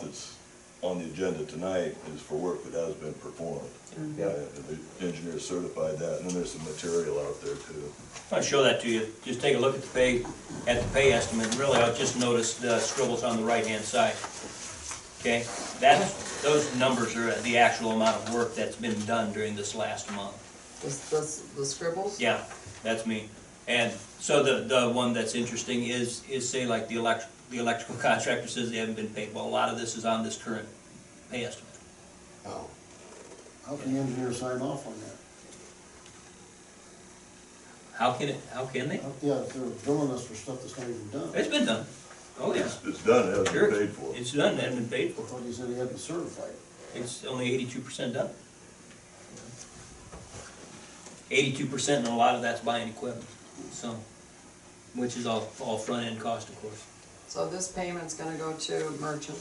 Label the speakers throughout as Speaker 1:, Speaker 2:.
Speaker 1: that's on the agenda tonight is for work that has been performed.
Speaker 2: Yeah.
Speaker 1: Uh, The engineer certified that, and then there's some material out there too.
Speaker 3: I'll show that to you, just take a look at the pay, at the pay estimate, really, I just noticed the scribbles on the right-hand side. Okay, that's, those numbers are the actual amount of work that's been done during this last month.
Speaker 2: The, the, the scribbles?
Speaker 3: Yeah, that's me. And so the, the one that's interesting is, is say like the elect, the electrical contractor says they haven't been paid, well, a lot of this is on this current pay estimate.
Speaker 4: Oh,
Speaker 5: How can the engineer sign off on that?
Speaker 3: How can it, how can they?
Speaker 5: How- Yeah, if they're billing us for stuff that's not even done.
Speaker 3: It's been done. Oh, yeah.
Speaker 1: It's, it's done, it hasn't
Speaker 3: Sure.
Speaker 1: been paid for.
Speaker 3: It's done, it hasn't been paid
Speaker 5: I
Speaker 3: for.
Speaker 5: thought he said he hadn't certified it.
Speaker 3: It's only eighty-two percent done. Eighty-two percent, and a lot of that's buying equipment, so, which is all, all front-end cost, of course.
Speaker 2: So this payment's gonna go to merchant.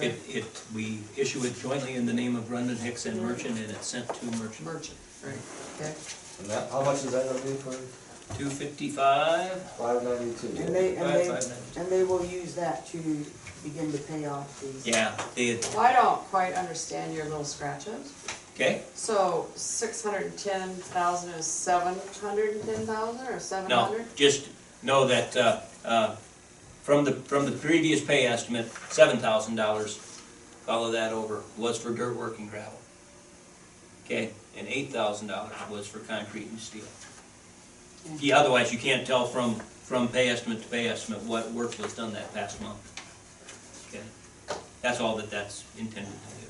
Speaker 3: It, it, we issue it jointly in the name of Brendan Hicks and Merchant, and it's sent to Merchant.
Speaker 2: Merchant, right, okay.
Speaker 4: and that, how much is that gonna be for
Speaker 3: Two fifty-five,
Speaker 4: five ninety-two?
Speaker 6: And they, and
Speaker 3: Five,
Speaker 6: they,
Speaker 3: five minutes.
Speaker 6: and they will use that to begin to pay off these.
Speaker 3: yeah, they,
Speaker 2: Well, I don't quite understand your little scratches.
Speaker 3: okay?
Speaker 2: So six hundred and ten thousand is seven hundred and ten thousand or seven
Speaker 3: No,
Speaker 2: hundred?
Speaker 3: just know that, uh, uh, from the, from the previous pay estimate, seven thousand dollars, follow that over, was for dirt work and gravel. Okay, and eight thousand dollars was for concrete and steel. Yeah, otherwise you can't tell from, from pay estimate to pay estimate what work was done that past month. Okay, that's all that that's intended to do.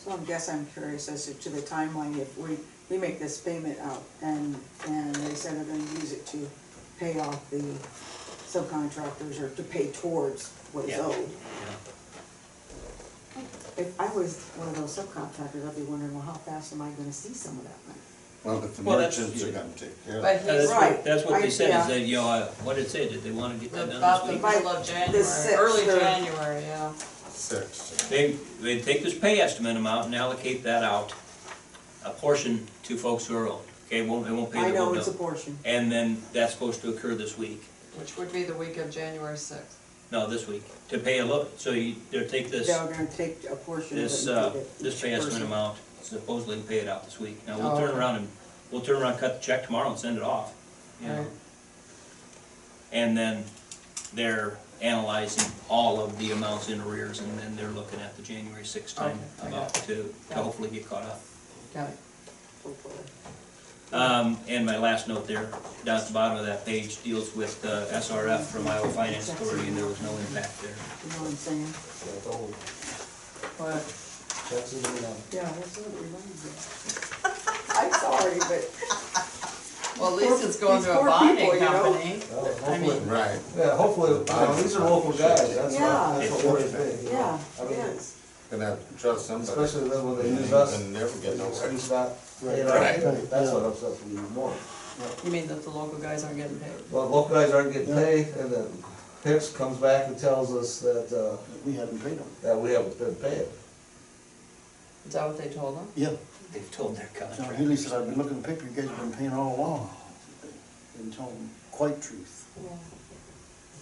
Speaker 6: So I guess I'm curious as to the timeline, if we, we make this payment out and, and they said they're gonna use it to pay off the subcontractors or to pay towards what is
Speaker 3: Yeah.
Speaker 6: owed.
Speaker 3: Yeah.
Speaker 6: If I was one of those subcontractors, I'd be wondering, well, how fast am I gonna see some of that money?
Speaker 4: Well, but the
Speaker 3: Well, that's-
Speaker 4: merchants are gonna take care of
Speaker 2: But
Speaker 4: it.
Speaker 3: Yeah,
Speaker 2: he's
Speaker 3: That's
Speaker 6: Right.
Speaker 3: what, that's what they
Speaker 6: I-
Speaker 3: said,
Speaker 6: yeah.
Speaker 3: is that, you know, uh, what did it say, did they wanna get that done
Speaker 2: about the
Speaker 3: this week?
Speaker 2: middle of January,
Speaker 6: sixth
Speaker 2: early
Speaker 6: or-
Speaker 2: January, yeah.
Speaker 4: Six.
Speaker 3: They, they take this pay estimate amount and allocate that out, a portion to folks who are owed, okay, won't, they won't pay
Speaker 6: I
Speaker 3: the
Speaker 6: know
Speaker 3: whole
Speaker 6: it's a
Speaker 3: bill.
Speaker 6: portion.
Speaker 3: And then that's supposed to occur this week,
Speaker 2: Which would be the week of January sixth.
Speaker 3: no, this week, to pay a look, so you, they'll take this,
Speaker 6: They're gonna take a portion of it.
Speaker 3: this,
Speaker 6: and
Speaker 3: uh,
Speaker 6: give it
Speaker 3: this
Speaker 6: each
Speaker 3: pay estimate
Speaker 6: person.
Speaker 3: amount, supposedly and pay it out this week. Now,
Speaker 2: Oh,
Speaker 3: we'll turn
Speaker 2: okay.
Speaker 3: around and, we'll turn around, cut the check tomorrow and send it off, you know.
Speaker 2: Right.
Speaker 3: And then they're analyzing all of the amounts in arrears, and then they're looking at the January sixth time
Speaker 2: Okay, I
Speaker 3: about
Speaker 2: got
Speaker 3: to, to
Speaker 2: Got it.
Speaker 3: hopefully get caught up.
Speaker 2: Got it.
Speaker 6: Hopefully.
Speaker 3: Um, and my last note there, down at the bottom of that page, deals with uh, SRF from Iowa Finance Authority, and there was no impact there.
Speaker 6: You know what I'm saying?
Speaker 4: That's all.
Speaker 2: What?
Speaker 4: Checks are going out.
Speaker 6: Yeah, that's what it reminds me. I'm sorry, but.
Speaker 2: Well, at least it's going
Speaker 6: These
Speaker 2: to a
Speaker 6: poor people,
Speaker 2: bonding
Speaker 6: you know?
Speaker 2: company.
Speaker 4: Well,
Speaker 2: I
Speaker 4: hopefully,
Speaker 2: mean,
Speaker 4: right.
Speaker 7: Yeah, hopefully, you know, these are local guys, that's
Speaker 6: Yeah.
Speaker 7: what, that's what worries me. you know.
Speaker 6: Yeah,
Speaker 7: I
Speaker 6: it
Speaker 7: mean,
Speaker 6: is.
Speaker 4: Gonna have to trust somebody.
Speaker 7: Especially then when they
Speaker 4: And
Speaker 7: use us,
Speaker 4: you never get
Speaker 7: it's
Speaker 4: nowhere.
Speaker 7: it's not, you know,
Speaker 4: Right.
Speaker 7: that's what upsets me even more.
Speaker 2: you mean that the local guys aren't getting paid?
Speaker 7: Well, local guys aren't getting paid, and then Hicks comes back and tells us that, uh,
Speaker 5: We haven't paid them.
Speaker 7: that we haven't been paid.
Speaker 2: Is that what they told them?
Speaker 5: Yeah,
Speaker 3: They've told their
Speaker 5: John
Speaker 3: contract.
Speaker 5: Healy said, I've been looking at the picture, you guys have been paying all along. Didn't tell them quite truth.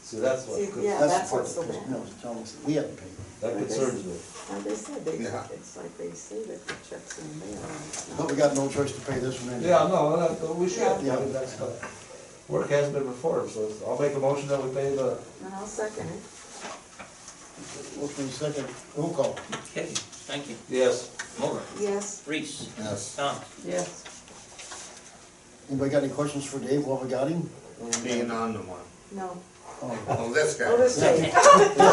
Speaker 7: See, that's what,
Speaker 6: See, yeah.
Speaker 5: the
Speaker 6: that's
Speaker 5: part
Speaker 6: what's
Speaker 5: that
Speaker 6: so
Speaker 5: pisses
Speaker 6: bad.
Speaker 5: me off, is telling us that we haven't paid them.
Speaker 7: that concerns me.
Speaker 6: And they said they,
Speaker 4: Yeah.
Speaker 6: it's like they say that the checks in the mail. and it's not.
Speaker 5: But Oh, we got no choice to pay this one anyway.
Speaker 7: Yeah, no, that- we should, I
Speaker 5: Yeah.
Speaker 7: mean, that's, uh, work has been performed, so I'll make a motion that we pay the,
Speaker 6: And I'll second it.
Speaker 5: Motion in second, roll call.
Speaker 3: Okay, thank you.
Speaker 7: yes,
Speaker 3: Mulder,
Speaker 6: Yes,
Speaker 3: Reese,
Speaker 4: Yes.
Speaker 3: Tom,
Speaker 2: Yes.
Speaker 5: Anybody got any questions for Dave while we got him?
Speaker 4: Being on the one.
Speaker 6: no.
Speaker 5: Oh.
Speaker 4: Oh, this guy.
Speaker 6: Oh, this day.
Speaker 4: My,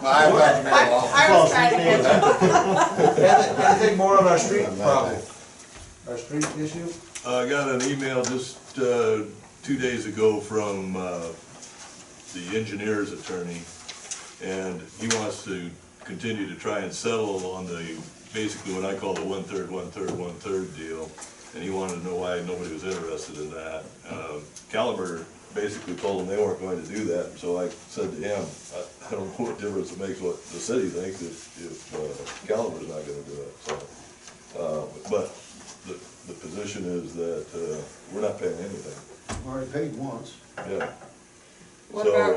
Speaker 4: my, my.
Speaker 2: I was trying to catch up.
Speaker 7: anything anything more on our street
Speaker 4: I'm not
Speaker 7: problem?
Speaker 4: there.
Speaker 7: Our street issue?
Speaker 1: Uh, I got an email just, uh, two days ago from, uh, the engineer's attorney, and he wants to continue to try and settle on the, basically what I call the one-third, one-third, one-third deal, and he wanted to know why nobody was interested in that. Uh, Caliber basically told him they weren't going to do that, so I said to him, I, I don't know what difference it makes what the city thinks if, if uh, Caliber's not gonna do it, so. Uh, but the, the position is that, uh, we're not paying anything,
Speaker 5: Already paid once.
Speaker 1: yeah.
Speaker 2: What
Speaker 1: So-
Speaker 2: about